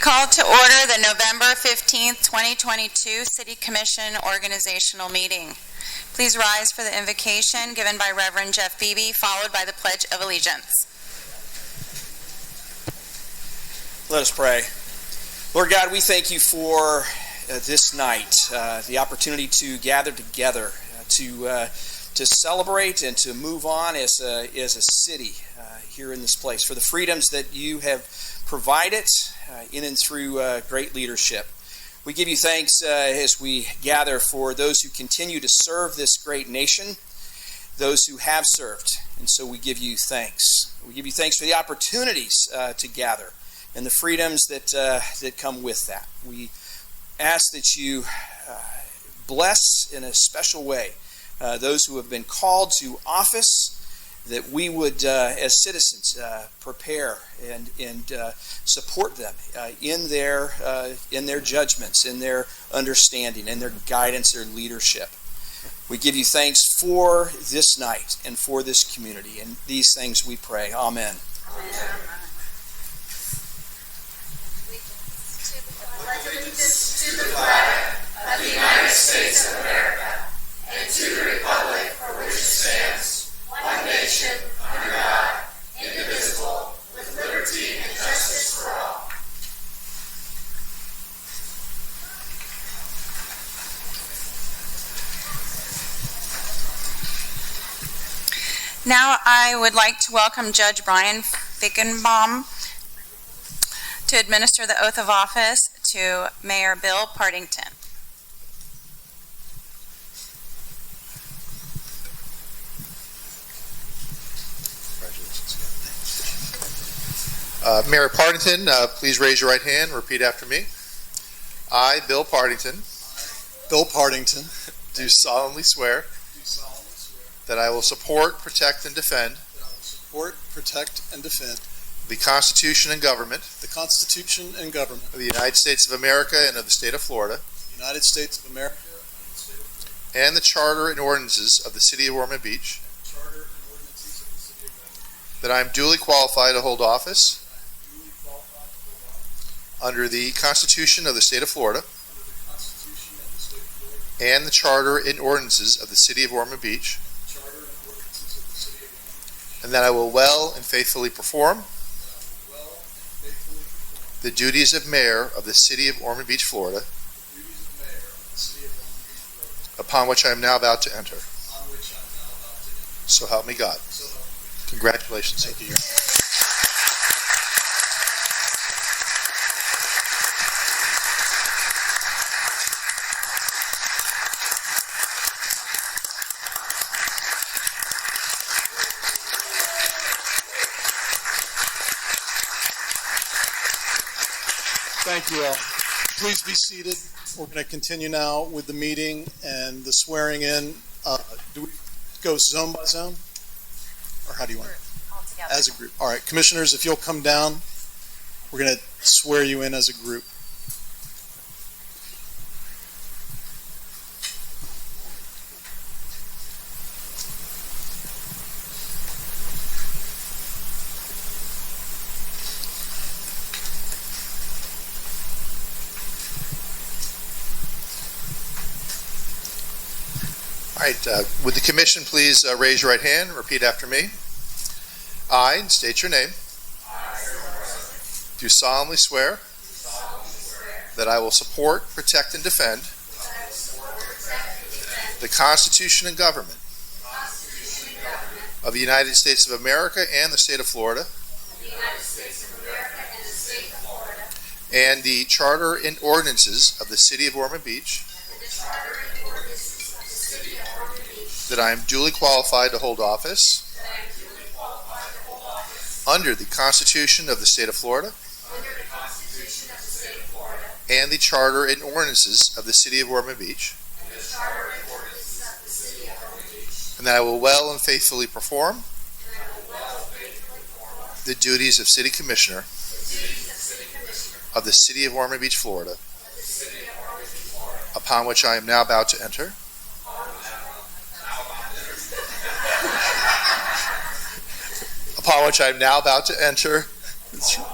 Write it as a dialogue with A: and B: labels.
A: Call to order the November 15th, 2022 City Commission Organizational Meeting. Please rise for the invocation given by Reverend Jeff Beebe, followed by the Pledge of Allegiance.
B: Let us pray. Lord God, we thank you for uh, this night, uh, the opportunity to gather together, uh, to uh, to celebrate and to move on as a, as a city uh, here in this place, for the freedoms that you have provided uh, in and through uh, great leadership. We give you thanks uh, as we gather for those who continue to serve this great nation, those who have served, and so we give you thanks. We give you thanks for the opportunities uh, to gather and the freedoms that uh, that come with that. We ask that you uh, bless in a special way uh, those who have been called to office. That we would, uh, as citizens, uh, prepare and and uh, support them uh, in their uh, in their judgments, in their understanding, in their guidance, their leadership. We give you thanks for this night and for this community, and these things we pray. Amen.
A: Now, I would like to welcome Judge Brian Fickenbaum to administer the oath of office to Mayor Bill Partington.
C: Uh, Mayor Partington, uh, please raise your right hand, and repeat after me. I, Bill Partington,
D: Bill Partington,
C: do solemnly swear
D: do solemnly swear
C: that I will support, protect, and defend
D: that I will support, protect, and defend
C: the Constitution and government
D: the Constitution and government
C: of the United States of America and of the state of Florida,
D: of the United States of America,
C: and the charter and ordinances of the city of Ormond Beach,
D: Charter and ordinances of the City of Ormond,
C: that I am duly qualified to hold office
D: duly qualified to hold office
C: under the Constitution of the state of Florida
D: under the Constitution and the State of Florida,
C: and the charter and ordinances of the city of Ormond Beach,
D: the Charter and ordinances of the City of Ormond,
C: and that I will well and faithfully perform
D: that I will well and faithfully perform
C: the duties of mayor of the city of Ormond Beach, Florida,
D: the duties of Mayor of the City of Ormond Beach, Florida,
C: upon which I am now about to enter.
D: on which I am now about to enter.
C: So help me God.
D: So help me God.
C: Congratulations. Thank you.
D: Thank you all. Please be seated. We're going to continue now with the meeting and the swearing in. Uh, Do we go zone by zone? Or how do you want? As a group. All right, commissioners, if you'll come down, we're going to swear you in as a group.
C: All right, uh, would the commission please uh, raise your right hand, and repeat after me? I, and state your name. Do solemnly swear that I will support, protect, and defend the Constitution and government of the United States of America and the state of Florida and the charter and ordinances of the city of Ormond Beach That I am duly qualified to hold office. Under the Constitution of the State of Florida. And the Charter and ordinances of the City of Ormond Beach. And that I will well and faithfully perform. The duties of City Commissioner. Of the City of Ormond Beach, Florida. Upon which I am now about to enter. upon which I am now about to enter. That's right.